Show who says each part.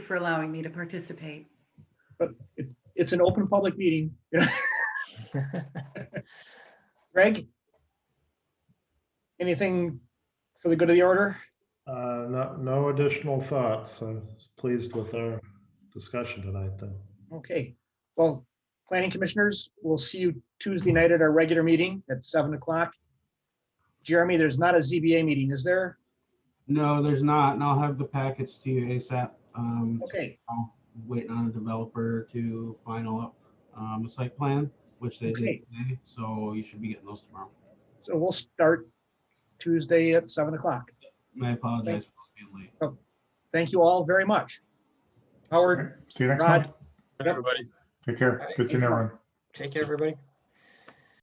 Speaker 1: for allowing me to participate.
Speaker 2: It's an open public meeting. Greg? Anything for the good of the order?
Speaker 3: Uh, No, no additional thoughts. I was pleased with our discussion tonight, though.
Speaker 2: Okay, well, planning commissioners, we'll see you Tuesday night at our regular meeting at seven o'clock. Jeremy, there's not a ZBA meeting, is there?
Speaker 4: No, there's not, and I'll have the packets to you ASAP. Um,
Speaker 2: Okay,
Speaker 4: I'm waiting on a developer to final up, um, a site plan, which they
Speaker 2: Okay.
Speaker 4: did today, so you should be getting those tomorrow.
Speaker 2: so we'll start Tuesday at seven o'clock.
Speaker 4: And I apologize for being late.
Speaker 2: Thank you all very much. Howard,
Speaker 5: See you next
Speaker 2: Rod.
Speaker 5: month.
Speaker 2: Yep.
Speaker 6: Everybody.
Speaker 5: Take care. Good seeing everyone.
Speaker 6: Take care, everybody.